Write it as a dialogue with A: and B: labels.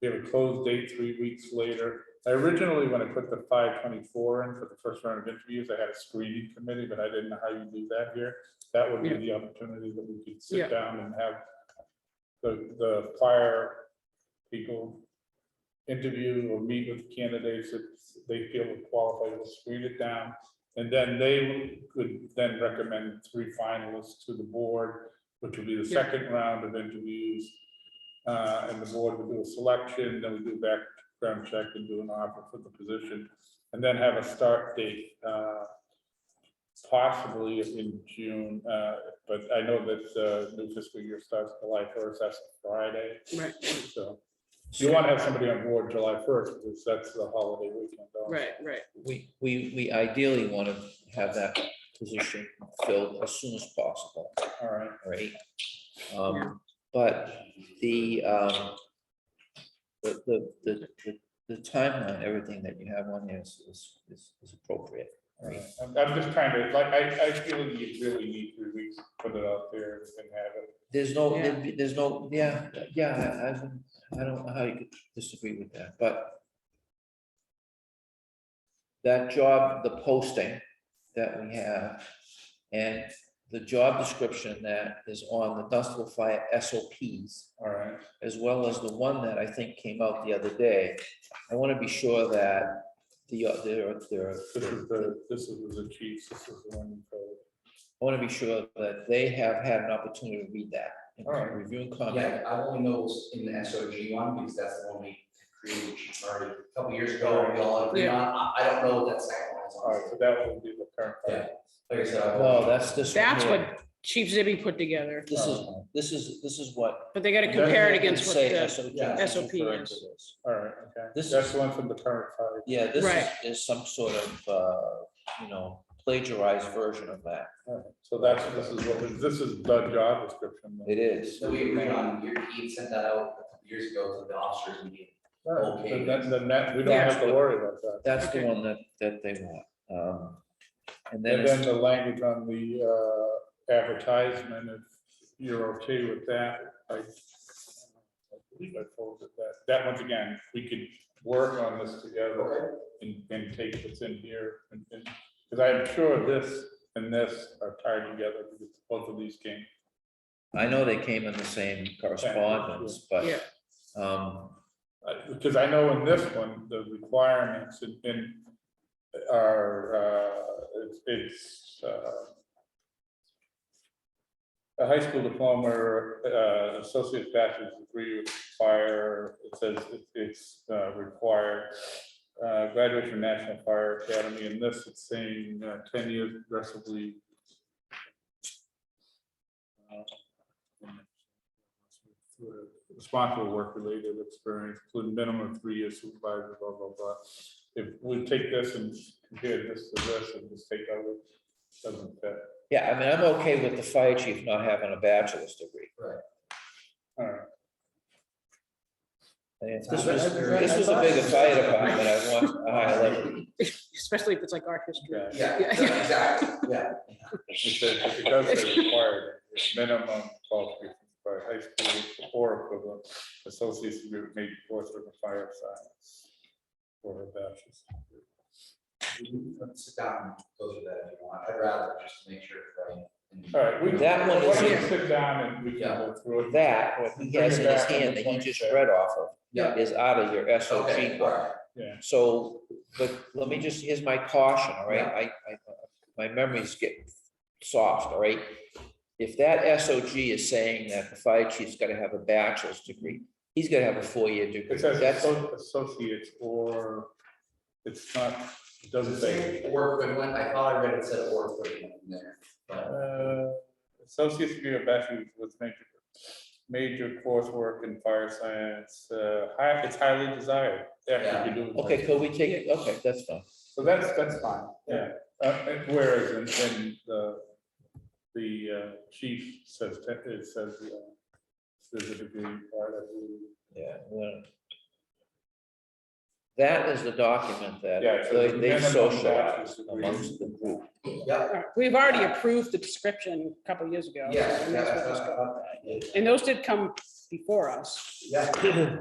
A: We have a closed date three weeks later. I originally, when I put the five twenty-four in for the first round of interviews, I had a screening committee, but I didn't know how you do that here. That would be
B: Yeah.
A: the opportunity that we could
B: Yeah.
A: sit down and have the, the prior people interview or meet with candidates that they feel are qualified, we'll screen it down. And then they could then recommend three finalists to the board, which would be the
B: Yeah.
A: second round of interviews. Uh, and the board would do a selection, then we do background check and do an offer for the position, and then have a start date, uh, possibly in June, uh, but I know that, uh, new fiscal year starts July first, that's Friday,
B: Right,
A: so. You want to have somebody on board July first, because that's the holiday weekend. also.
B: right, right.
C: We, we, we ideally want to have that position filled as soon as possible,
A: All right,
C: right? Um, But the, um, the, the, the, the- the timeline, everything that you have on there is, is, is- is appropriate.
A: all right. I'm, I'm just trying to, like, I, I feel you really need three weeks to put it out there and have it.
C: There's no,
B: Yeah.
C: there'd be- there's no, yeah, yeah, I, I don't- I don't know how you could disagree with that, but that job, the posting that we have, and the job description that is on the Dunstable Fire SOPs,
A: All right,
C: as well as the one that I think came out the other day, I want to be sure that the, uh, there, are- there, are-
A: this is the, this is the chiefs, this is the one. for-
C: I want to be sure that they have had an opportunity to read that and
A: All right.
C: review and comment.
D: Yeah, I only know it's in the S O G one, because that's the one we created already a couple years ago, and we all agreed on, I, I don't know what that second one is.
A: All right,
D: honestly.
A: so that will be the current.
D: Yeah. Like I said. I-
C: No, that's this. one
B: That's
C: here.
B: what Chief Zibby put together,
C: This is, this is, this is what.
B: but they gotta compare it against what
C: Say
B: the,
C: SOP
D: yeah,
C: is
B: SOP
C: referring
B: is.
C: to this.
A: All right, okay.
C: This is-
A: That's the one from the current fire.
C: Yeah, this is,
B: Right.
C: is some sort of, uh, you know, plagiarized version of that.
A: All right, So that's, this is what, was- this is the job description. then.
C: It is.
D: So we agreed on, your team sent that out a couple years ago to the officers meeting.
A: All right,
D: Okay.
A: Then, that- then that, we don't have to worry about that.
C: That's
B: Okay.
C: the one that, that they want. Um, and then,
A: And then
C: it's-
A: the language on the uh, advertisement, if you're okay with that, I I believe I folded that. That once again, we could work on this together and, and take what's in here. and Because I'm sure this and this are tied together because both of these came.
C: I know they came in the same correspondence, but,
B: yeah,
C: um,
A: Uh, Because I know in this one, the requirements in- in are, uh, it's- it's uh, a high school diploma, or, uh, associate bachelor's degree would require, it says it- it's uh, required. uh, Graduation from National Fire Academy, and this it's saying uh, ten years aggressively. Uh, Responsible work-related experience, including minimum of three years supervisor, blah, blah, blah. If we take this and compare this to this and just take out, it doesn't fit.
C: yeah, I mean, I'm okay with the fire chief not having a bachelor's degree.
A: All right.
C: And If this
D: I- I-
C: was,
D: I-
C: this was a bigger fire department, I want a higher level.
B: especially if it's like art history.
A: Yeah,
D: Yeah,
B: Yeah.
D: exactly, yeah.
A: It says- it does say required, minimum qualifications by high school or equivalent, associate's degree with major course of fire science. Or a bachelor's.
D: We can Sit down and go through that if you want, I'd rather just make sure. that I-
A: All right, we.
C: That one
A: Why
C: is
A: don't you
C: here.
A: sit down and we can go through it.
C: That, what he has in his hand that he just read off of.
D: Yeah,
C: is out of your SOP
D: okay, all
C: book.
D: right,
C: So, but let me just, here's my caution, all right?
D: Yeah.
C: I, I, my memory's getting soft, all right? If that SOG is saying that the fire chief's gotta have a bachelor's degree, he's gotta have a four-year degree.
A: It says
C: That's,
A: asso- associates or, it's not, it doesn't say.
D: Or equivalent, I thought I read it said or equivalent in there, but
A: Uh, Associate's degree or bachelor's with major, major coursework in fire science, uh, high, it's highly desired. Yeah, you do it.
C: okay, could we take, okay, that's fine.
A: So that's, that's fine, yeah. Uh, and Whereas in, in the, the uh, chief says, te- it says, uh, there's a degree. uh, part of the-
C: Yeah. well, That is the document that
A: Yeah, so
C: they-
A: the
C: they
A: minimum bachelor's
C: socialize
A: degree.
C: amongst the group.
D: yeah,
B: All right, We've already approved the description a couple years ago. so
D: yeah,
B: we
D: yeah,
B: might as well
D: that's
B: just
D: what I
B: go.
D: thought.
B: And those did come before us.
D: Yeah.